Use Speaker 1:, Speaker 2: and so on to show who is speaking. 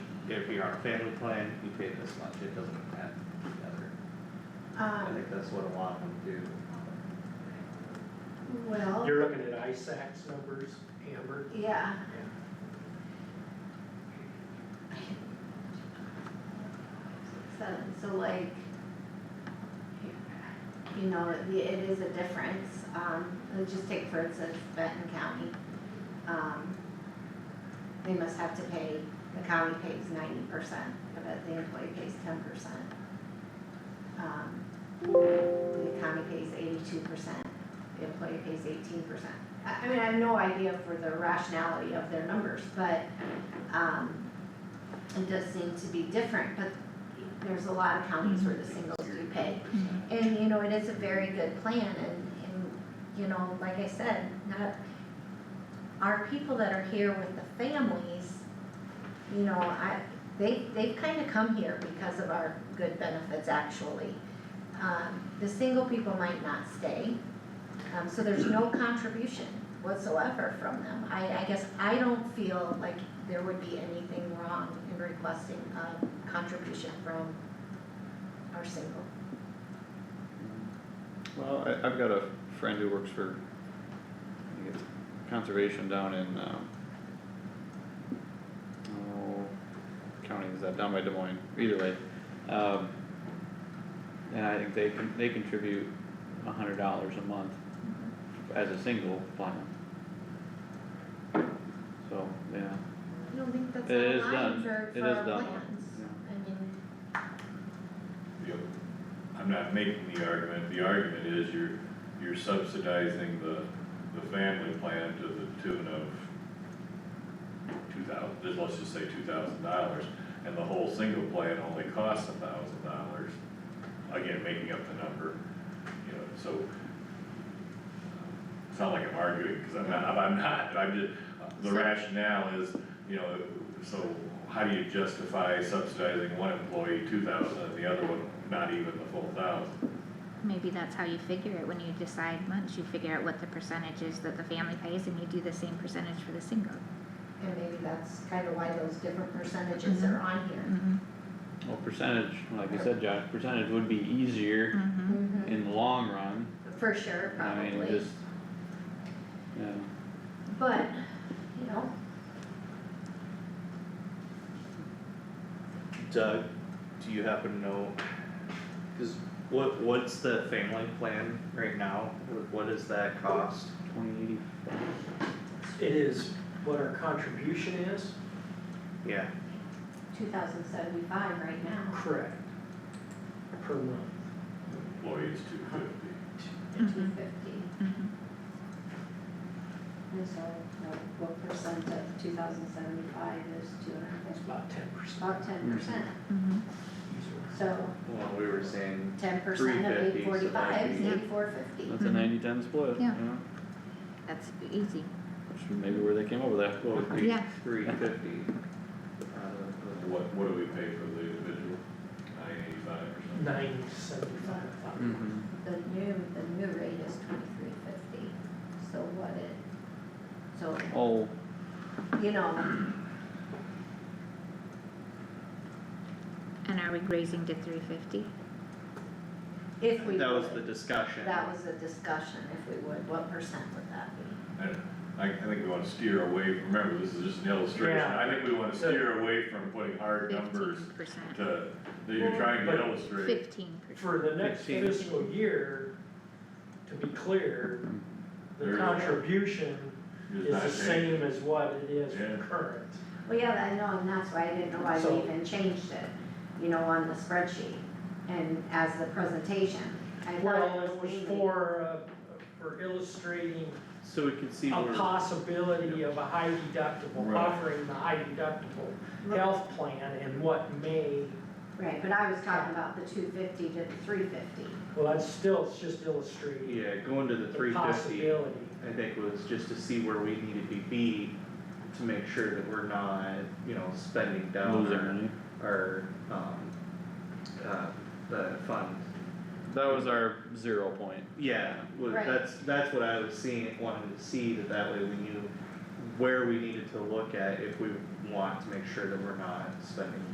Speaker 1: if you're on a family plan, you pay this much, it doesn't add together. I
Speaker 2: Um,
Speaker 1: think that's what a lot of them do.
Speaker 2: well,
Speaker 3: You're looking at ISAC's numbers, Amber?
Speaker 2: yeah,
Speaker 3: Yeah.
Speaker 2: seven, so like, you know, it, it is a difference, um, let's just take for instance Benton County. Um, they must have to pay, the county pays ninety percent of it, the employee pays ten percent. Um, the county pays eighty-two percent, the employee pays eighteen percent. I, I mean, I have no idea for the rationality of their numbers, but, um, it does seem to be different, but there's a lot of counties where the singles do pay. And, you know, it is a very good plan and, and, you know, like I said, not, our people that are here with the families, you know, I, they, they've kinda come here because of our good benefits actually. Um, the single people might not stay, um, so there's no contribution whatsoever from them. I, I guess I don't feel like there would be anything wrong in requesting a contribution from our single.
Speaker 4: Well, I, I've got a friend who works for, I think it's conservation down in, um, oh, county is that, down by Des Moines, either way. Um, and I think they con- they contribute a hundred dollars a month as a single plan. So, yeah,
Speaker 2: I don't think that's
Speaker 4: It
Speaker 2: online
Speaker 4: is done.
Speaker 2: for,
Speaker 4: It
Speaker 2: for
Speaker 4: is
Speaker 2: our
Speaker 4: done.
Speaker 2: plans.
Speaker 4: Yeah.
Speaker 2: I mean,
Speaker 5: Yep. I'm not making the argument, the argument is you're, you're subsidizing the, the family plan to the tune of two thousand, let's just say two thousand dollars, and the whole single plan only costs a thousand dollars. Again, making up the number, you know, so. It's not like I'm arguing, cause I'm not, I'm not, I'm just, the
Speaker 2: So-
Speaker 5: rationale is, you know, so how do you justify subsidizing one employee two thousand and the other one not even the full thousand?
Speaker 6: Maybe that's how you figure it, when you decide once, you figure out what the percentage is that the family pays and you do the same percentage for the single.
Speaker 2: and maybe that's kind of why those different percentages are on here.
Speaker 6: Mm-hmm.
Speaker 4: well, percentage, like you said, Josh, percentage would be easier
Speaker 6: Mm-hmm.
Speaker 2: Mhm.
Speaker 4: in the long run,
Speaker 2: For sure,
Speaker 4: I mean,
Speaker 2: probably,
Speaker 4: just, yeah.
Speaker 2: but, you know,
Speaker 1: Doug, do you happen to know, cause what, what's the family plan right now? What- What does that cost?
Speaker 4: Twenty eighty
Speaker 3: It is what our contribution is?
Speaker 1: Yeah,
Speaker 2: two thousand seventy-five right now,
Speaker 3: Correct. Per month.
Speaker 5: Employees two fifty,
Speaker 2: two
Speaker 6: Mhm.
Speaker 2: fifty,
Speaker 6: Mm-hmm.
Speaker 2: and so what, what percent of two thousand seventy-five is two and a
Speaker 3: It's
Speaker 2: half?
Speaker 3: about ten percent.
Speaker 2: About
Speaker 1: Hmm.
Speaker 2: ten percent,
Speaker 6: Mm-hmm.
Speaker 2: so
Speaker 1: well, we were saying,
Speaker 2: ten percent of
Speaker 1: 350, so that'd
Speaker 2: eight forty-five is
Speaker 6: be-
Speaker 2: eighty-four fifty.
Speaker 4: That's a
Speaker 6: Mhm.
Speaker 4: ninety ten split, you
Speaker 6: Yeah.
Speaker 4: know,
Speaker 6: That's easy.
Speaker 4: which is maybe where they came up with that
Speaker 1: what
Speaker 4: quote.
Speaker 1: would be
Speaker 6: Yeah.
Speaker 1: three fifty?
Speaker 5: what, what do we pay for the individual? Nine eighty-five or something?
Speaker 3: Nine seventy-five.
Speaker 2: The new, the new rate is twenty-three fifty, so what it, so,
Speaker 4: Oh,
Speaker 2: you know,
Speaker 6: And are we raising to three fifty?
Speaker 2: if we
Speaker 1: That was the
Speaker 2: would,
Speaker 1: discussion.
Speaker 2: that was a discussion, if we would, what percent would that be?
Speaker 5: I, I I think we wanna steer away, remember, this is just an illustration,
Speaker 3: Yeah.
Speaker 5: I think we wanna steer away from putting hard numbers
Speaker 6: Fifteen percent.
Speaker 5: to, that you're trying to
Speaker 3: But-
Speaker 5: illustrate.
Speaker 6: Fifteen percent.
Speaker 3: For the next
Speaker 1: Fifteen.
Speaker 3: fiscal year, to be clear, the
Speaker 5: There is-
Speaker 3: contribution
Speaker 5: It's
Speaker 3: is
Speaker 5: not
Speaker 3: the
Speaker 5: changing.
Speaker 3: same as what it is for
Speaker 5: Yeah.
Speaker 3: current.
Speaker 2: Well, yeah, I know, and that's why I didn't know why we
Speaker 3: So-
Speaker 2: even changed it, you know, on the spreadsheet and as the presentation. I thought
Speaker 3: Well, it was
Speaker 2: mainly-
Speaker 3: for, uh, for illustrating
Speaker 1: So we could see
Speaker 3: a
Speaker 1: where.
Speaker 3: possibility of a high deductible,
Speaker 5: Right.
Speaker 3: offering the high deductible health plan and what may,
Speaker 2: Right, but I was talking about the two fifty to the three fifty.
Speaker 3: well, that's still, it's just illustrating
Speaker 1: Yeah, going to the
Speaker 3: the
Speaker 1: three fifty,
Speaker 3: possibility.
Speaker 1: I think was just to see where we needed to be to make sure that we're not, you know, spending down
Speaker 4: losing
Speaker 1: our,
Speaker 4: money.
Speaker 1: our, um, uh, the fund.
Speaker 4: That was our zero point.
Speaker 1: Yeah, well,
Speaker 2: Right.
Speaker 1: that's, that's what I was seeing, wanted to see, that that way we knew where we needed to look at if we want to make sure that we're not spending